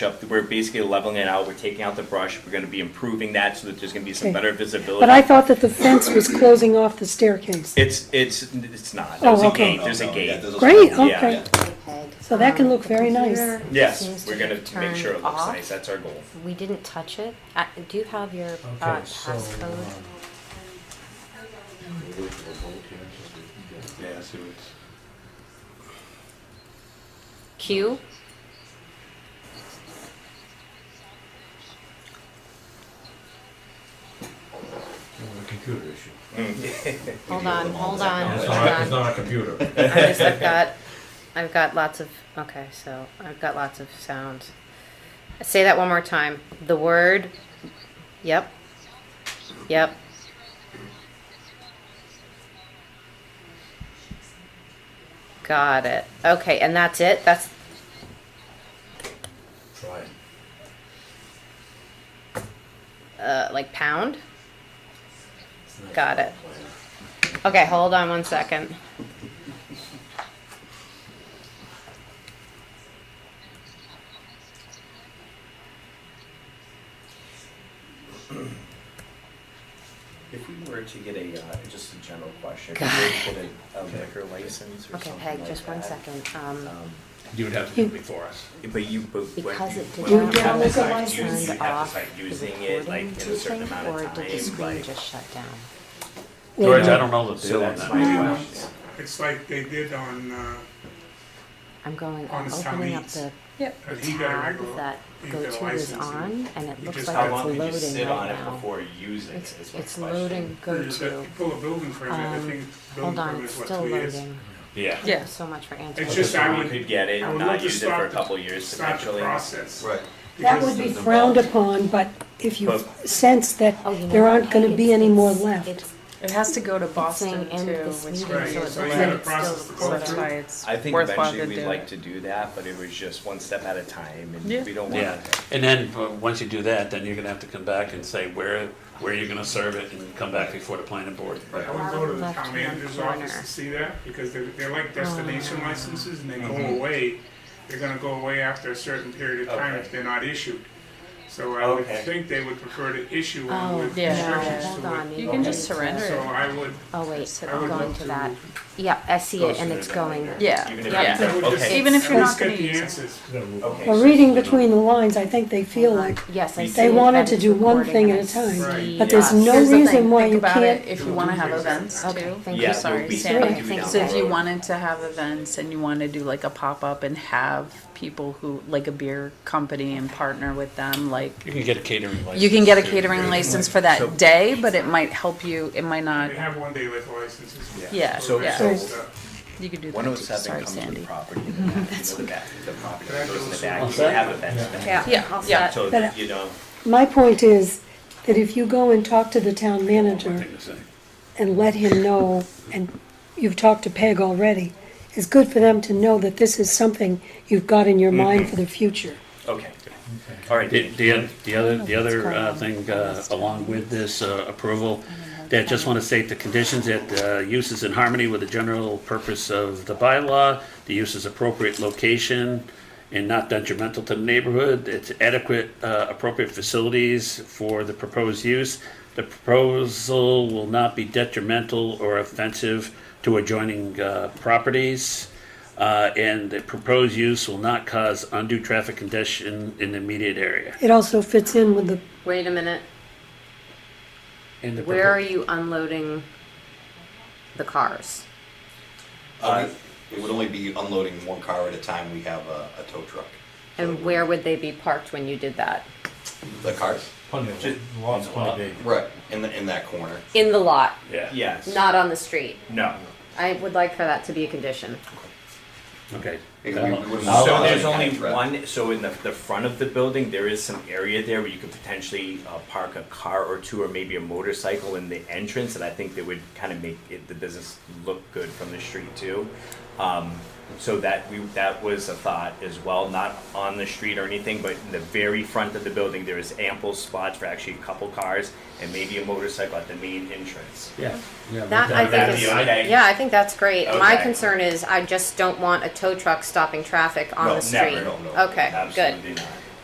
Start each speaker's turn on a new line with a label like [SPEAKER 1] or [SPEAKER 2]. [SPEAKER 1] up. We're basically leveling it out. We're taking out the brush. We're going to be improving that so that there's going to be some
[SPEAKER 2] Okay.
[SPEAKER 1] better visibility.
[SPEAKER 2] But I thought that the fence was closing off the staircase.
[SPEAKER 1] It's, it's, it's not.
[SPEAKER 2] Oh,
[SPEAKER 1] There's a
[SPEAKER 2] okay.
[SPEAKER 1] gate, there's a
[SPEAKER 3] No, no, yeah,
[SPEAKER 1] gate.
[SPEAKER 3] there's a-
[SPEAKER 2] Great,
[SPEAKER 3] yeah,
[SPEAKER 2] okay.
[SPEAKER 3] yeah.
[SPEAKER 2] So that can look very nice.
[SPEAKER 4] Um, Computer seems
[SPEAKER 1] Yes,
[SPEAKER 4] to
[SPEAKER 1] we're going
[SPEAKER 4] have
[SPEAKER 1] to make sure it
[SPEAKER 4] turned
[SPEAKER 1] looks
[SPEAKER 4] off.
[SPEAKER 1] nice. That's our goal.
[SPEAKER 4] We didn't touch it. Uh, Do you have your uh,
[SPEAKER 5] Okay, so,
[SPEAKER 4] passcode?
[SPEAKER 5] um,
[SPEAKER 3] Yeah, I see what's.
[SPEAKER 4] Q?
[SPEAKER 5] a computer issue.
[SPEAKER 4] Hold on, hold on,
[SPEAKER 5] It's
[SPEAKER 4] hold
[SPEAKER 5] not, it's
[SPEAKER 4] on.
[SPEAKER 5] not a computer.
[SPEAKER 4] I just, I've got, I've got lots of, okay, so I've got lots of sounds. Say that one more time. The word, yep, yep. Got it. Okay, and that's it? That's,
[SPEAKER 5] Try it.
[SPEAKER 4] uh, like pound? Got it. Okay, hold on one second.
[SPEAKER 1] If we were to get a, uh, just a general question,
[SPEAKER 4] Got
[SPEAKER 1] if we were to get a- a liquor license or
[SPEAKER 4] Okay,
[SPEAKER 1] something
[SPEAKER 4] Peg,
[SPEAKER 1] like
[SPEAKER 4] just one
[SPEAKER 1] that,
[SPEAKER 4] second.
[SPEAKER 1] um,
[SPEAKER 4] Um,
[SPEAKER 6] You would have to do it before us.
[SPEAKER 1] But you, but when you.
[SPEAKER 4] Because it did
[SPEAKER 1] when you
[SPEAKER 4] not
[SPEAKER 1] have to
[SPEAKER 2] have
[SPEAKER 1] start
[SPEAKER 2] the
[SPEAKER 1] using-
[SPEAKER 2] license
[SPEAKER 1] You have
[SPEAKER 4] off
[SPEAKER 1] to start
[SPEAKER 4] the
[SPEAKER 1] using it like
[SPEAKER 4] recording,
[SPEAKER 1] in
[SPEAKER 4] do
[SPEAKER 1] a
[SPEAKER 4] you
[SPEAKER 1] certain
[SPEAKER 4] think,
[SPEAKER 1] amount of
[SPEAKER 4] or
[SPEAKER 1] time,
[SPEAKER 4] did the screen
[SPEAKER 1] like-
[SPEAKER 4] just shut down?
[SPEAKER 6] George, I don't know the
[SPEAKER 1] So
[SPEAKER 6] deal on
[SPEAKER 1] that's
[SPEAKER 6] that.
[SPEAKER 1] my question.
[SPEAKER 7] It's like they did on, uh,
[SPEAKER 4] I'm going,
[SPEAKER 7] On
[SPEAKER 4] I'm
[SPEAKER 7] the
[SPEAKER 4] opening up
[SPEAKER 7] Chinese.
[SPEAKER 4] the
[SPEAKER 7] that he got
[SPEAKER 4] tab
[SPEAKER 7] a go-
[SPEAKER 4] that
[SPEAKER 7] he got a
[SPEAKER 4] GoTo is
[SPEAKER 7] license
[SPEAKER 4] on, and it
[SPEAKER 7] You
[SPEAKER 4] looks
[SPEAKER 7] just
[SPEAKER 4] like
[SPEAKER 7] have-
[SPEAKER 1] How long
[SPEAKER 4] it's
[SPEAKER 1] did you sit
[SPEAKER 4] loading
[SPEAKER 1] on
[SPEAKER 4] right
[SPEAKER 1] it
[SPEAKER 4] now.
[SPEAKER 1] before using it
[SPEAKER 4] It's,
[SPEAKER 1] is my
[SPEAKER 4] it's
[SPEAKER 1] question.
[SPEAKER 4] loading
[SPEAKER 7] You just have
[SPEAKER 4] GoTo.
[SPEAKER 7] to pull a building permit, I
[SPEAKER 4] Um,
[SPEAKER 7] think building
[SPEAKER 4] Hold on,
[SPEAKER 7] permit
[SPEAKER 4] it's
[SPEAKER 7] is what,
[SPEAKER 4] still
[SPEAKER 7] two years?
[SPEAKER 4] loading.
[SPEAKER 1] Yeah.
[SPEAKER 4] Thank you so much for answering.
[SPEAKER 7] It's just, I
[SPEAKER 1] We
[SPEAKER 7] would,
[SPEAKER 1] could get it,
[SPEAKER 7] I would
[SPEAKER 1] not
[SPEAKER 7] love to
[SPEAKER 1] use it for a
[SPEAKER 7] stop the-
[SPEAKER 1] couple years
[SPEAKER 7] stop the
[SPEAKER 1] eventually.
[SPEAKER 7] process.
[SPEAKER 3] Right.
[SPEAKER 2] That
[SPEAKER 7] Because
[SPEAKER 2] would be
[SPEAKER 3] the-
[SPEAKER 2] frowned upon, but if you sense that
[SPEAKER 4] Oh, you know
[SPEAKER 2] there
[SPEAKER 4] what,
[SPEAKER 2] aren't
[SPEAKER 4] Peg,
[SPEAKER 2] gonna be
[SPEAKER 4] it's-
[SPEAKER 2] any more
[SPEAKER 4] it's-
[SPEAKER 2] left.
[SPEAKER 4] it's-
[SPEAKER 8] It has to go to Boston
[SPEAKER 4] saying
[SPEAKER 8] too,
[SPEAKER 4] end this
[SPEAKER 8] which
[SPEAKER 4] meeting,
[SPEAKER 7] so
[SPEAKER 8] means
[SPEAKER 7] it's Right,
[SPEAKER 8] that
[SPEAKER 7] a
[SPEAKER 8] it's
[SPEAKER 7] process
[SPEAKER 8] still,
[SPEAKER 7] to go
[SPEAKER 8] that's
[SPEAKER 7] through.
[SPEAKER 8] why it's
[SPEAKER 1] I think
[SPEAKER 8] worthwhile
[SPEAKER 1] eventually
[SPEAKER 8] to do
[SPEAKER 1] we'd like
[SPEAKER 8] it.
[SPEAKER 1] to do that, but it was just one step at a time
[SPEAKER 8] Yeah.
[SPEAKER 1] and we don't
[SPEAKER 6] Yeah,
[SPEAKER 1] want to.
[SPEAKER 6] and then, uh, once you do that, then you're gonna have to come back and say where, where you're gonna serve it and come back before the planning board.
[SPEAKER 7] Right, I would go to the
[SPEAKER 4] Left
[SPEAKER 7] town
[SPEAKER 4] hand
[SPEAKER 7] manager's office
[SPEAKER 4] corner.
[SPEAKER 7] to see that, because they're, they're
[SPEAKER 4] Oh,
[SPEAKER 7] like destination licenses and they go
[SPEAKER 1] Mm-hmm.
[SPEAKER 7] away. They're gonna go away after a certain period of time
[SPEAKER 1] Okay.
[SPEAKER 7] if they're not issued. So I would
[SPEAKER 1] Okay.
[SPEAKER 7] think they would prefer to issue one
[SPEAKER 4] Oh,
[SPEAKER 7] with
[SPEAKER 8] Yeah.
[SPEAKER 7] restrictions
[SPEAKER 4] Hold
[SPEAKER 7] to
[SPEAKER 4] on,
[SPEAKER 7] it.
[SPEAKER 8] You
[SPEAKER 4] maybe
[SPEAKER 8] can
[SPEAKER 4] I
[SPEAKER 8] just
[SPEAKER 4] need to-
[SPEAKER 8] surrender
[SPEAKER 7] So I would,
[SPEAKER 4] Oh, wait,
[SPEAKER 8] I
[SPEAKER 4] I'm
[SPEAKER 7] would
[SPEAKER 4] going
[SPEAKER 7] love
[SPEAKER 4] to
[SPEAKER 7] to-
[SPEAKER 4] that. Yeah, I see it, and it's going,
[SPEAKER 8] Yeah,
[SPEAKER 1] Even if
[SPEAKER 8] yeah.
[SPEAKER 1] it's-
[SPEAKER 7] I would just-
[SPEAKER 1] Okay.
[SPEAKER 8] Even if you're
[SPEAKER 7] I would
[SPEAKER 8] not gonna
[SPEAKER 7] get the
[SPEAKER 8] use it.
[SPEAKER 7] answers.
[SPEAKER 1] Okay,
[SPEAKER 2] But
[SPEAKER 1] so-
[SPEAKER 2] reading between the lines, I think they feel like,
[SPEAKER 4] yes, I see.
[SPEAKER 2] They
[SPEAKER 4] it,
[SPEAKER 2] wanted
[SPEAKER 4] that
[SPEAKER 2] to
[SPEAKER 4] it's
[SPEAKER 2] do one
[SPEAKER 4] recording,
[SPEAKER 2] thing
[SPEAKER 4] and
[SPEAKER 2] at
[SPEAKER 4] I
[SPEAKER 2] a time,
[SPEAKER 4] see
[SPEAKER 2] but there's
[SPEAKER 4] us.
[SPEAKER 2] no
[SPEAKER 8] Here's the thing,
[SPEAKER 2] reason why
[SPEAKER 8] think
[SPEAKER 2] you
[SPEAKER 8] about it,
[SPEAKER 2] can't-
[SPEAKER 8] If you wanna have events
[SPEAKER 4] Okay,
[SPEAKER 8] too.
[SPEAKER 4] thank
[SPEAKER 1] Yeah,
[SPEAKER 4] you, sorry,
[SPEAKER 1] we'll be
[SPEAKER 8] Sam,
[SPEAKER 1] happy
[SPEAKER 4] Sandy,
[SPEAKER 1] to
[SPEAKER 4] thank
[SPEAKER 1] do
[SPEAKER 8] So if
[SPEAKER 1] that.
[SPEAKER 8] you wanted to have events and you wanna do like a pop-up and have people who, like a beer company and partner with them, like,
[SPEAKER 6] You can get a catering license.
[SPEAKER 8] you can get a
[SPEAKER 6] too.
[SPEAKER 8] catering license for that day, but it might help you, it might not,
[SPEAKER 7] They have one day liquor licenses.
[SPEAKER 8] yeah,
[SPEAKER 1] So-
[SPEAKER 8] yeah,
[SPEAKER 1] so-
[SPEAKER 8] you could do that
[SPEAKER 1] One
[SPEAKER 8] too,
[SPEAKER 1] oh seven
[SPEAKER 8] sorry,
[SPEAKER 1] comes with the
[SPEAKER 8] Sandy.
[SPEAKER 1] property, in the back, you know, the back, the property that goes in the back, you
[SPEAKER 6] What's that?
[SPEAKER 1] have events back.
[SPEAKER 4] Yeah,
[SPEAKER 8] Yeah,
[SPEAKER 4] all
[SPEAKER 8] yeah.
[SPEAKER 4] set.
[SPEAKER 1] So,
[SPEAKER 2] But-
[SPEAKER 1] you know,
[SPEAKER 2] my point is that if you go and talk to the town manager
[SPEAKER 6] Thing to say.
[SPEAKER 2] and let him know, and you've talked to Peg already, it's good for them to know that this is something you've got in your mind
[SPEAKER 6] Mm-hmm.
[SPEAKER 2] for the future.
[SPEAKER 1] okay. All right,
[SPEAKER 6] The,
[SPEAKER 1] Dan.
[SPEAKER 6] the, the other, the other uh, thing uh, along with this uh, approval, that just want to state the conditions that the use is in harmony with the general purpose of the bylaw, the use is appropriate location and not detrimental to the neighborhood, it's adequate, uh, appropriate facilities for the proposed use. The proposal will not be detrimental or offensive to adjoining uh, properties. Uh, and the proposed use will not cause undue traffic congestion in the immediate area.
[SPEAKER 2] It also fits in with the,
[SPEAKER 4] Wait a minute,
[SPEAKER 6] And the
[SPEAKER 4] where are
[SPEAKER 6] propo-
[SPEAKER 4] you unloading the cars?
[SPEAKER 3] Uh, we- It would only be unloading one car at a time, we have a, a tow truck.
[SPEAKER 4] And where would they be parked when you did that?
[SPEAKER 3] The cars?
[SPEAKER 5] Plenty
[SPEAKER 1] Just-
[SPEAKER 5] of, lots, plenty big.
[SPEAKER 3] Right. In the, in that corner.
[SPEAKER 4] In the lot,
[SPEAKER 6] Yeah,
[SPEAKER 1] Yes.
[SPEAKER 4] not on the street.
[SPEAKER 1] No.
[SPEAKER 4] I would like for that to be a condition.
[SPEAKER 6] okay.
[SPEAKER 3] We- we wouldn't
[SPEAKER 6] I'll-
[SPEAKER 3] want
[SPEAKER 1] So
[SPEAKER 3] I'll-
[SPEAKER 1] there's
[SPEAKER 3] I'll-
[SPEAKER 1] only
[SPEAKER 3] I'll-
[SPEAKER 1] one, so in the, the front of the building, there is some area there where you could potentially uh, park a car or two or maybe a motorcycle in the entrance, and I think that would kind of make it, the business look good from the street too. Um, so that we, that was a thought as well, not on the street or anything, but in the very front of the building, there is ample spots for actually a couple cars and maybe a motorcycle at the main entrance.
[SPEAKER 6] Yeah. yeah,
[SPEAKER 4] That I
[SPEAKER 6] that-
[SPEAKER 4] think is,
[SPEAKER 1] That'd be okay.
[SPEAKER 4] yeah, I think that's great. My
[SPEAKER 1] Okay.
[SPEAKER 4] concern is I just don't want a tow truck stopping traffic on
[SPEAKER 3] No,
[SPEAKER 4] the
[SPEAKER 3] never,
[SPEAKER 4] street.
[SPEAKER 3] no, no,
[SPEAKER 4] Okay, good.
[SPEAKER 1] Absolutely not.